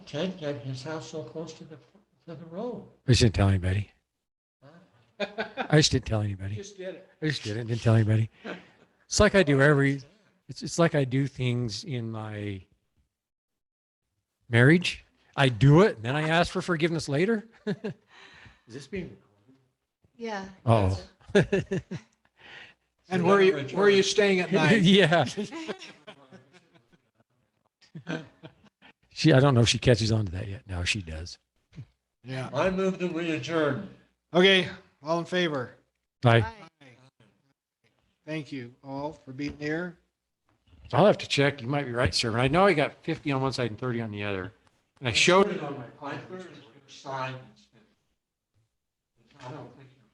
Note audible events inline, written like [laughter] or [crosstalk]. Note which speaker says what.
Speaker 1: Ted got his house so close to the, to the road.
Speaker 2: I just didn't tell anybody.
Speaker 1: Huh?
Speaker 2: I just didn't tell anybody.
Speaker 1: Just did it.
Speaker 2: I just didn't, didn't tell anybody. It's like I do every, it's, it's like I do things in my marriage. I do it and then I ask for forgiveness later.
Speaker 1: Is this being?
Speaker 3: Yeah.
Speaker 2: Oh.
Speaker 3: that's it.
Speaker 4: And where are you, where are you staying at
Speaker 2: [laughs]
Speaker 4: night?
Speaker 2: yeah. She, I don't know if she catches on to that yet. No, she does.
Speaker 4: Yeah.
Speaker 1: [laughs] I move that we adjourn.
Speaker 4: Okay, all in favor?
Speaker 2: I,
Speaker 3: Bye.
Speaker 4: Thank you all for being here.
Speaker 2: I'll have to check. You might be right, sir. But I know I got 50 on one side and 30 on the other. And I showed it on my
Speaker 1: I
Speaker 2: plan.
Speaker 1: sign. I don't think